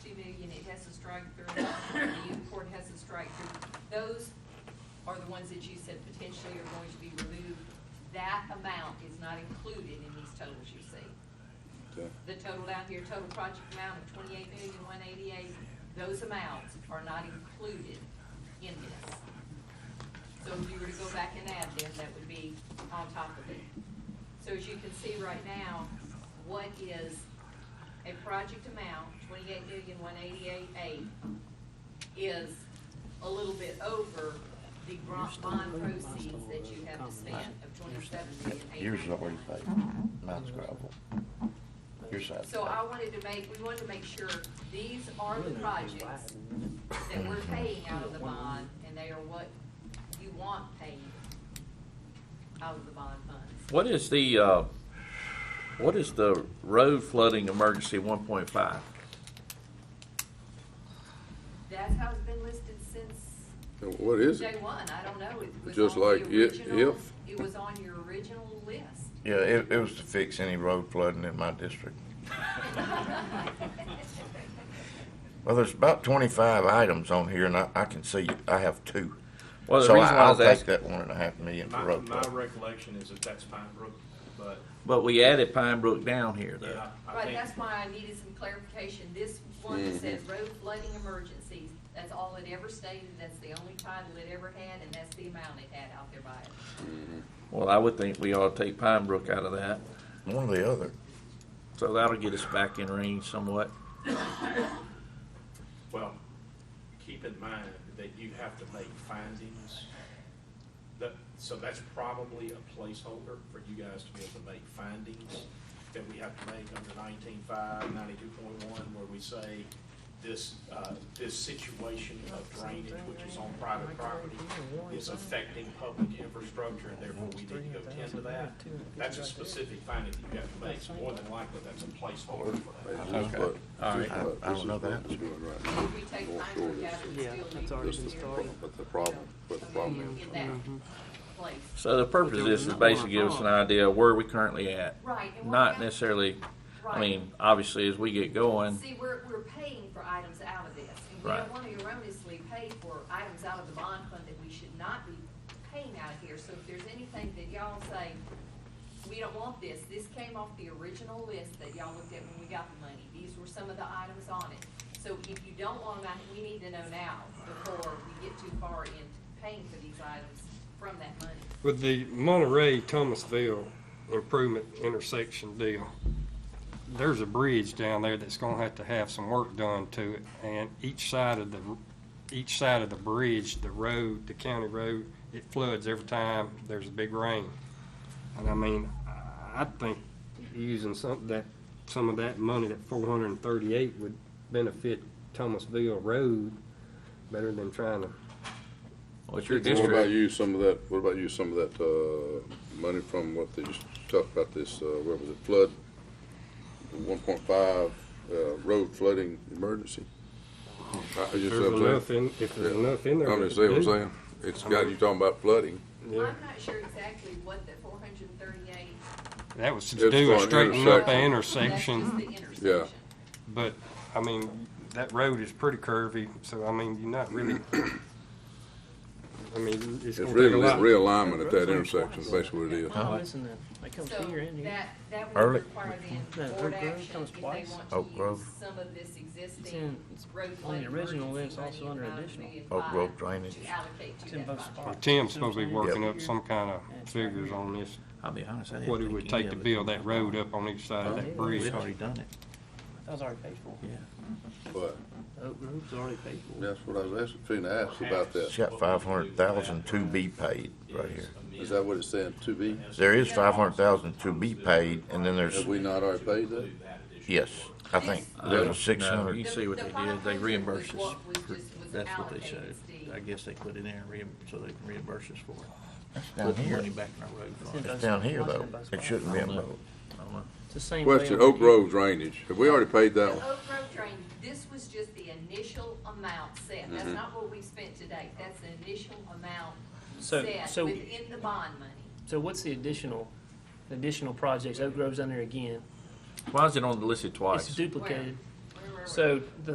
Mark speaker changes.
Speaker 1: strike-through, the youth court has a strike-through. Those are the ones that you said potentially are going to be removed. That amount is not included in these totals you see.
Speaker 2: Okay.
Speaker 1: The total down here, total project amount of twenty-eight million, one eighty-eight, those amounts are not included in this. So if you were to go back and add them, that would be on top of it. So as you can see right now, what is a project amount, twenty-eight million, one eighty-eight, eight, is a little bit over the grant bond proceeds that you have to spend of twenty-seven million, eight
Speaker 3: Yours is
Speaker 1: ninety-nine.
Speaker 3: already paid, mine's gravel. Your side's.
Speaker 1: So
Speaker 3: paid.
Speaker 1: I wanted to make, we wanted to make sure these are the projects that we're paying out of the bond, and they are what you want paid out of the bond funds.
Speaker 4: What is the, uh, what is the road flooding emergency one point five?
Speaker 1: That's how it's been listed since
Speaker 2: And what is
Speaker 1: day
Speaker 2: it?
Speaker 1: one, I don't know. It was
Speaker 2: Just
Speaker 1: on the
Speaker 2: like i-
Speaker 1: original-
Speaker 2: if-
Speaker 1: It was on your original list.
Speaker 3: Yeah, it, it was to fix any road flooding in my district. Well, there's about twenty-five items on here, and I, I can see, I have two.
Speaker 4: Well, the
Speaker 3: So
Speaker 4: reason
Speaker 3: I-
Speaker 4: why I
Speaker 3: I'll
Speaker 4: was
Speaker 3: take
Speaker 4: ask-
Speaker 3: that one and a half million for
Speaker 5: My,
Speaker 3: road
Speaker 5: my
Speaker 3: flooding.
Speaker 5: recollection is that that's Pine Brook, but
Speaker 4: But we added Pine Brook down here though.
Speaker 5: yeah, I
Speaker 1: Right,
Speaker 5: think,
Speaker 1: that's why I needed some clarification. This one that says
Speaker 2: Mm-hmm.
Speaker 1: road flooding emergencies, that's all it ever stated, that's the only title it ever had, and that's the amount it had out there by it.
Speaker 4: Well, I would think we ought to take Pine Brook out of that,
Speaker 3: One or the other.
Speaker 4: so that'll get us back in range somewhat.
Speaker 5: well, keep in mind that you have to make findings. That, so that's probably a placeholder for you guys to be able to make findings that we have to make under nineteen-five, ninety-two point one, where we say this, uh, this situation of drainage, which is on private property, is affecting public infrastructure, and therefore we need to go tend to that. That's a specific finding that you have to make, so more than likely, that's a placeholder for that.
Speaker 2: Okay.
Speaker 4: All right.
Speaker 3: I- I don't know that.
Speaker 2: This is what we're doing
Speaker 1: We
Speaker 2: right
Speaker 1: take
Speaker 2: now.
Speaker 1: time
Speaker 2: Going
Speaker 1: for
Speaker 2: forward.
Speaker 1: that, we
Speaker 6: Yeah,
Speaker 1: still
Speaker 6: that's
Speaker 1: need to
Speaker 6: already
Speaker 2: This
Speaker 6: been Mm-hmm.
Speaker 1: be clear
Speaker 2: is, the pro- but the problem, but the problem
Speaker 1: in
Speaker 2: is,
Speaker 1: that place.
Speaker 4: So the purpose of this is basically give us an idea of where we currently at.
Speaker 1: Right, and what
Speaker 4: Not
Speaker 1: about-
Speaker 4: necessarily, I
Speaker 1: Right.
Speaker 4: mean, obviously as we get going,
Speaker 1: See, we're, we're paying for items out of this, and we
Speaker 4: Right.
Speaker 1: don't want to erroneously pay for items out of the bond fund that we should not be paying out of here. So if there's anything that y'all say, we don't want this, this came off the original list that y'all looked at when we got the money. These were some of the items on it. So if you don't want them, out, we need to know now before we get too far into paying for these items from that money.
Speaker 7: With the Monterey Thomasville improvement intersection deal, there's a bridge down there that's gonna have to have some work done to it. And each side of the, each side of the bridge, the road, the county road, it floods every time there's a big rain. And I mean, I- I think using some, that, some of that money, that four hundred and thirty-eight would benefit Thomasville Road better than trying to
Speaker 4: what's your
Speaker 2: what about
Speaker 4: district?
Speaker 2: you, some of that, what about you, some of that, uh, money from what they just talked about this, uh, what was it, flood? One point five, uh, road flooding emergency? I- I just-
Speaker 7: There's
Speaker 2: I'm saying-
Speaker 7: enough in, if there's
Speaker 2: Yeah.
Speaker 7: enough in there.
Speaker 2: I'm just
Speaker 7: to
Speaker 2: saying what I'm
Speaker 7: do.
Speaker 2: saying. It's got, you talking about flooding.
Speaker 7: Yeah.
Speaker 1: I'm not sure exactly what the four hundred and thirty-eight.
Speaker 7: That was to
Speaker 2: It's
Speaker 7: do
Speaker 2: for
Speaker 7: a
Speaker 2: an
Speaker 7: straightening up the intersection,
Speaker 1: That's just the intersection.
Speaker 7: but, I mean, that road is pretty curvy, so, I mean, you're not really, I mean, it's
Speaker 2: It's
Speaker 7: gonna take
Speaker 2: really
Speaker 7: a
Speaker 2: that
Speaker 7: lot.
Speaker 2: realignment at that intersection, is basically what it is.
Speaker 6: Oh, isn't it? It comes
Speaker 1: So
Speaker 6: here and here.
Speaker 1: that, that would
Speaker 3: Early.
Speaker 1: require then
Speaker 6: No,
Speaker 1: board
Speaker 6: Oak Grove
Speaker 1: action
Speaker 6: comes
Speaker 1: if they
Speaker 6: twice.
Speaker 1: want
Speaker 3: Oak
Speaker 1: to use
Speaker 3: Grove.
Speaker 1: some of this
Speaker 6: It's
Speaker 1: existing
Speaker 6: in- it's
Speaker 1: road
Speaker 6: on
Speaker 1: flood
Speaker 6: the original
Speaker 1: emergency
Speaker 6: list, also
Speaker 1: money
Speaker 6: under
Speaker 1: amount of
Speaker 6: additional.
Speaker 1: million
Speaker 3: Oak Grove
Speaker 1: five
Speaker 3: drainage.
Speaker 1: To allocate
Speaker 6: It's
Speaker 1: to
Speaker 6: in
Speaker 1: that
Speaker 6: both
Speaker 1: project.
Speaker 6: spots.
Speaker 7: Tim's supposed to be working up
Speaker 6: Yep.
Speaker 7: some kind of figures on this,
Speaker 4: I'll be honest, I didn't
Speaker 7: what it
Speaker 4: think
Speaker 7: would
Speaker 4: any
Speaker 7: take
Speaker 4: of
Speaker 7: to
Speaker 4: it-
Speaker 7: build that road up on each side of that bridge.
Speaker 4: We've already done it,
Speaker 6: That was already paid for.
Speaker 4: yeah.
Speaker 2: But
Speaker 6: Oak Grove's already paid for.
Speaker 2: that's what I was asking, finna ask about
Speaker 3: It's
Speaker 2: that.
Speaker 3: got five hundred thousand to be paid right here.
Speaker 2: Is that what it's saying, to be?
Speaker 3: There is five hundred thousand to be paid, and then there's,
Speaker 2: Have we not already paid that?
Speaker 3: yes, I think there's a six
Speaker 4: Uh, No,
Speaker 3: hundred.
Speaker 4: you see what they did, they reimbursed us,
Speaker 1: The- the 500 was what was just- was
Speaker 4: that's what they
Speaker 1: allocated,
Speaker 4: showed.
Speaker 1: Steve.
Speaker 4: I guess they put it in and reim, so they can reimburse us for it.
Speaker 3: Down
Speaker 4: Put the
Speaker 3: here,
Speaker 4: money back in our road fund.
Speaker 6: It's
Speaker 3: it's down here though, it shouldn't be in road.
Speaker 4: I don't know.
Speaker 6: It's the same. way
Speaker 2: Question,
Speaker 6: over
Speaker 2: Oak
Speaker 6: here.
Speaker 2: Grove drainage, have we already paid
Speaker 1: The
Speaker 2: that one?
Speaker 4: Oh.
Speaker 1: Oak Grove drain, this was just the initial amount set. That's
Speaker 4: Mm-hmm.
Speaker 1: not what we spent to date. That's the initial amount
Speaker 6: So-
Speaker 1: set
Speaker 6: so-
Speaker 1: within the bond money.
Speaker 6: So what's the additional, additional projects? Oak Grove's on there again.
Speaker 4: Why is it on the list
Speaker 6: It's
Speaker 4: twice?
Speaker 6: duplicated.
Speaker 1: Where- where were we?
Speaker 6: So the